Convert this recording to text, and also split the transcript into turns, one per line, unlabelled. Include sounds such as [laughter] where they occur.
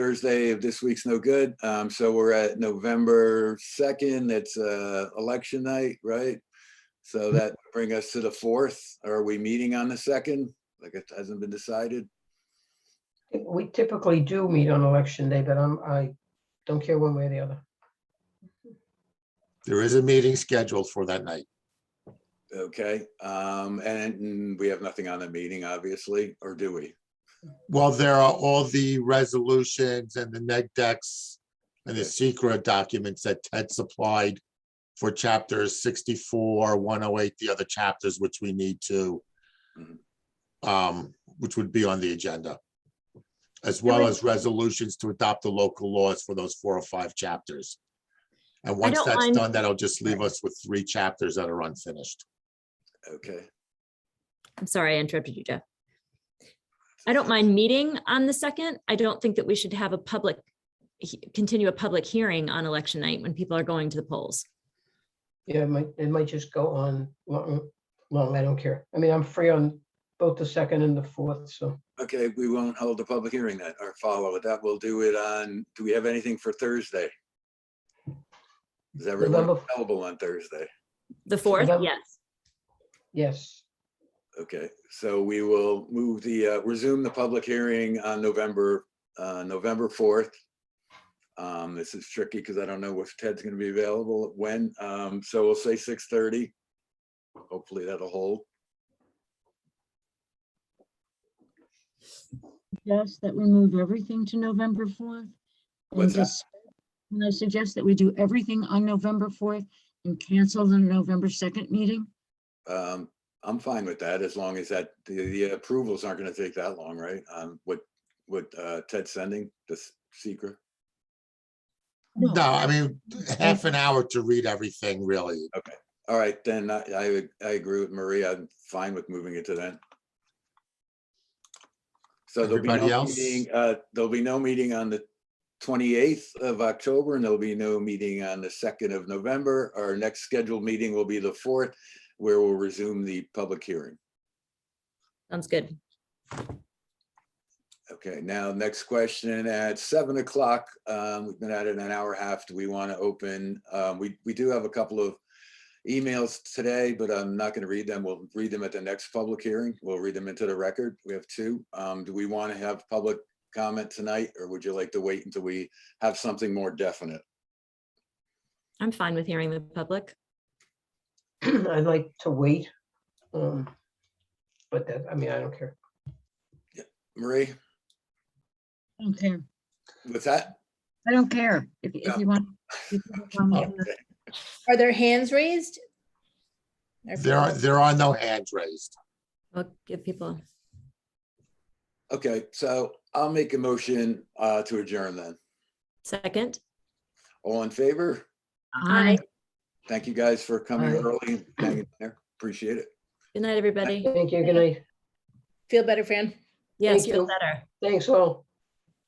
Thursday of this week's no good. Um, so we're at November second. It's, uh, election night, right? So that would bring us to the fourth. Are we meeting on the second? Like it hasn't been decided?
We typically do meet on election day, but I'm, I don't care one way or the other.
There is a meeting scheduled for that night.
Okay, um, and we have nothing on the meeting, obviously, or do we?
Well, there are all the resolutions and the neg decks and the
Okay.
secret documents that Ted supplied for chapters sixty-four, one oh eight, the other chapters which we need to
Mhm.
um, which would be on the agenda. As well as resolutions to adopt the local laws for those four or five chapters. And once
don't
that's
mind-
done, that'll just leave us with three chapters that are unfinished.
Okay.
I'm sorry, I interrupted you, Jeff. I don't mind meeting on the second. I don't think that we should have a public, he- continue a public hearing on election night when people are going to the polls.
Yeah, it might, it might just go on long, long, I don't care. I mean, I'm free on both the second and the fourth, so.
Okay, we won't hold the public hearing then, or follow it. That we'll do it on, do we have anything for Thursday? Is everyone
November-
available on Thursday?
The fourth,
that-
yes.
Yes, [clears throat]
Okay, so we will move the, uh, resume the public hearing on November, uh, November 4th. Um, This is tricky because I don't know if Ted's going to be available when, um, so we'll say 6:30. Hopefully that'll hold.
suggest that we move everything to November 4th? and
What's that?
just- Can I suggest that we do everything on November 4th and cancel the November 2nd meeting?
Um, I'm fine with that as long as that, the- the approvals aren't going to take that long, right? Um, What, what uh, Ted's sending, the secret?
No, I mean, half an hour to read everything, really.
All right, then I, I, I agree with Maria. I'm fine with moving it to then. So there'll be
Everybody
no
else?
meeting, uh, there'll be no meeting on the twenty-eighth of October and there'll be no meeting on the second of November. Our next scheduled meeting will be the fourth, where we'll resume the public hearing.
Sounds good.
Okay, now, next question at seven o'clock. Um, we've been at it an hour and a half. Do we want to open? Um, we, we do have a couple of emails today, but I'm not going to read them. We'll read them at the next public hearing. We'll read them into the record. We have two. Um, do we want to have public comment tonight or would you like to wait until we have something more definite?
I'm fine with hearing the public.
I'd like to wait. um, But that, I mean, I don't care.
Marie,
I don't care.
what's that?
I don't care if, if
Yeah.
you want. if you want to-
Okay.
Are there hands raised? Or-
There are, there are no hands raised.
We'll give people,
Okay, so I'll make a motion, uh, to adjourn then.
second.
All in favor?
Aye.
Thank you guys for coming
Aye.
early. and hanging in there. Appreciate it.
Good night, everybody.
Thank you, good night.
Feel better, Fran?
Yes,
Thank
feel
you.
better.
Thanks all.